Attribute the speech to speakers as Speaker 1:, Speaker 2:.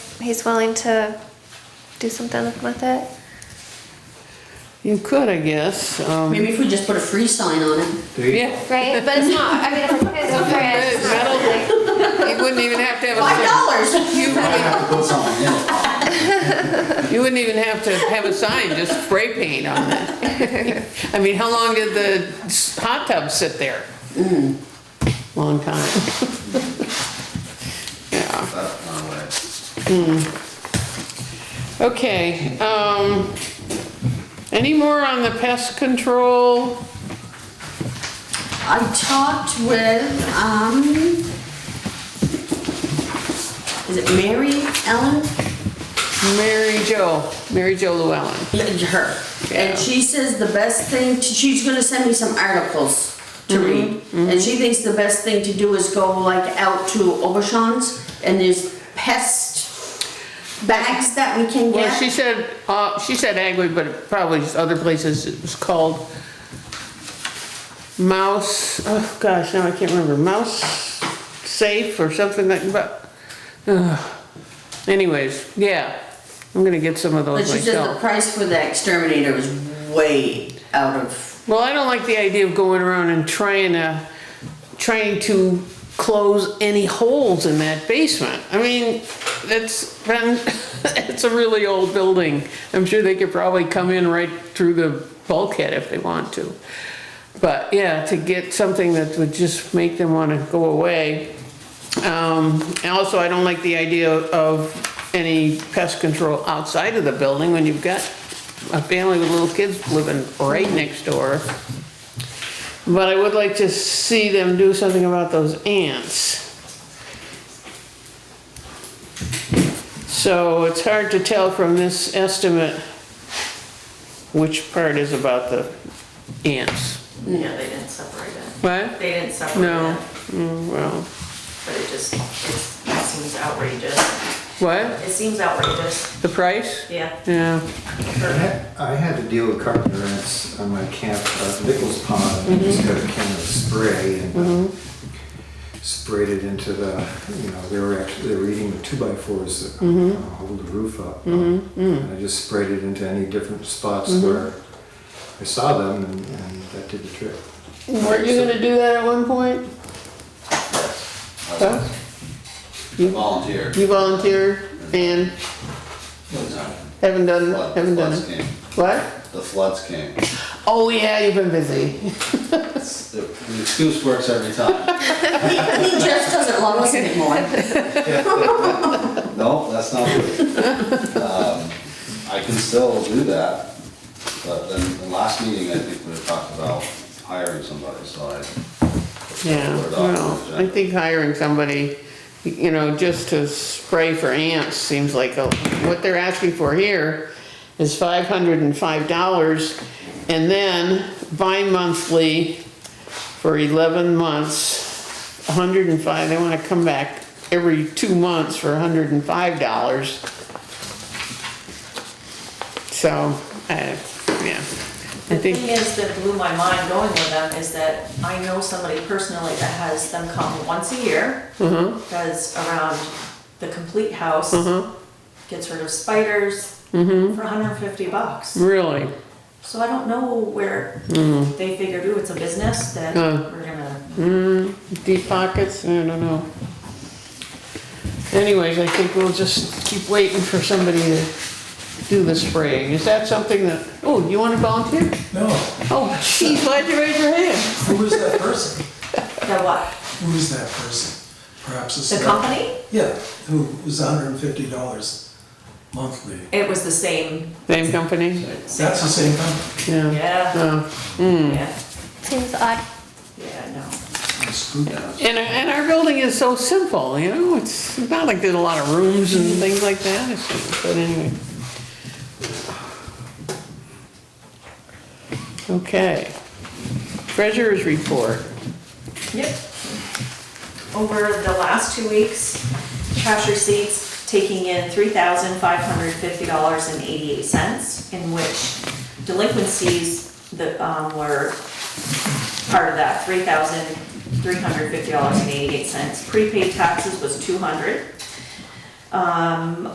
Speaker 1: he's willing to do something with it.
Speaker 2: You could, I guess. Um,
Speaker 3: Maybe if we just put a free sign on it.
Speaker 2: yeah,
Speaker 1: Right? But it's not, I mean, if it's a friend, it's not really-
Speaker 2: you wouldn't even have to have a
Speaker 3: Five
Speaker 2: sign.
Speaker 3: dollars!
Speaker 2: You
Speaker 4: I
Speaker 2: wouldn't,
Speaker 4: have to put something in it.
Speaker 2: you wouldn't even have to have a sign, just spray paint on it. I mean, how long did the s- hot tub sit there?
Speaker 1: Mm.
Speaker 2: Long time. Yeah.
Speaker 4: That's my way.
Speaker 2: Okay, um, any more on the pest control?
Speaker 3: I talked with, um, is it Mary Ellen?
Speaker 2: Mary Jo, Mary Jo Llewellyn.
Speaker 3: Yeah, Her.
Speaker 2: Yeah.
Speaker 3: And she says the best thing, to- she's gonna send me some articles to read. And she thinks the best thing to do is go like out to Obashan's and there's pest bags that we can
Speaker 2: Well, she
Speaker 3: get.
Speaker 2: said, uh, she said Agway, but probably just other places, it was called Mouse, oh gosh, now I can't remember, Mouse Safe or something like, but, ugh. anyways, yeah, I'm gonna get some of
Speaker 3: But
Speaker 2: those
Speaker 3: she said the
Speaker 2: myself.
Speaker 3: price for the exterminator is way out of
Speaker 2: Well, I don't like the idea of going around and trying to, trying to close any holes in that basement. I mean, it's been, it's a really old building. I'm sure they could probably come in right through the bulkhead if they want to. But yeah, to get something that would just make them wanna go away. Um, and also, I don't like the idea of any pest control outside of the building when you've got a family with little kids living right next door. But I would like to see them do something about those ants. So it's hard to tell from this estimate which part is about the ants.
Speaker 5: Yeah, they didn't separate it.
Speaker 2: What?
Speaker 5: They didn't separate
Speaker 2: No,
Speaker 5: it,
Speaker 2: Mm, well,
Speaker 5: but it just, it's- it seems outrageous.
Speaker 2: what?
Speaker 5: It seems outrageous,
Speaker 2: The price?
Speaker 5: yeah.
Speaker 2: Yeah.
Speaker 4: I had- I had to deal with carpet rats on my camp, uh, Nichols Pond, and just got a can of spray and uh, sprayed it into the, you know, they were actually, they were eating the two by fours that uh, hold the roof up. And I just sprayed it into any different spots where I saw them and and that did the trick.
Speaker 2: Weren't you gonna do that at one point? Huh?
Speaker 6: Volunteer.
Speaker 2: You volunteered and haven't done,
Speaker 6: Flood-
Speaker 2: haven't done
Speaker 6: floods
Speaker 2: it?
Speaker 6: came.
Speaker 2: What?
Speaker 6: The floods came.
Speaker 2: Oh yeah, you've been busy.
Speaker 6: The the excuse works every time.
Speaker 3: He, he just doesn't love us anymore.
Speaker 6: No, that's not true. Um, I can still do that, but then the last meeting, I think we talked about hiring somebody, so I.
Speaker 2: Yeah,
Speaker 6: put it off the
Speaker 2: well, I
Speaker 6: agenda.
Speaker 2: think hiring somebody, you know, just to spray for ants seems like, a- what they're asking for here is five hundred and five dollars. And then bi-monthly for eleven months, $105. they wanna come back every two months for hundred and five dollars. So, I, yeah, I
Speaker 5: The
Speaker 2: think.
Speaker 5: thing is that blew my mind going with them is that I know somebody personally that has them come once a year.
Speaker 2: Mm-hmm.
Speaker 5: Does around the complete house. Gets rid of spiders
Speaker 2: Mm-hmm.
Speaker 5: for hundred and fifty bucks.
Speaker 2: Really?
Speaker 5: So I don't know where they figured, ooh, it's a business that
Speaker 2: Mm-hmm. Uh.
Speaker 5: we're gonna
Speaker 2: Deep pockets, I don't know. Anyways, I think we'll just keep waiting for somebody to do the spraying. Is that something that, oh, you wanna volunteer?
Speaker 7: No,
Speaker 2: Oh, geez, why'd you raise your hand?
Speaker 7: who is that person?
Speaker 5: The what?
Speaker 7: Who is that person? Perhaps it's.
Speaker 5: The
Speaker 7: not-
Speaker 5: company?
Speaker 7: Yeah, who was hundred and fifty dollars monthly.
Speaker 5: It was the same.
Speaker 2: Same company?
Speaker 7: That's the same company.
Speaker 2: Yeah.
Speaker 5: Yeah,
Speaker 2: Oh.
Speaker 5: yeah,
Speaker 1: Seems odd.
Speaker 5: yeah, no.
Speaker 7: Screw that.
Speaker 2: And, our- and our building is so simple, you know, it's not like there's a lot of rooms and things like that, It's- but anyway. Okay. Treasurer's report.
Speaker 5: Yep. Over the last two weeks, cash receipts taking in three thousand five hundred fifty dollars and eighty-eight cents, in which delinquencies that, um, were part of that, three thousand three hundred fifty dollars and eighty-eight cents. Prepaid taxes was two hundred. Um,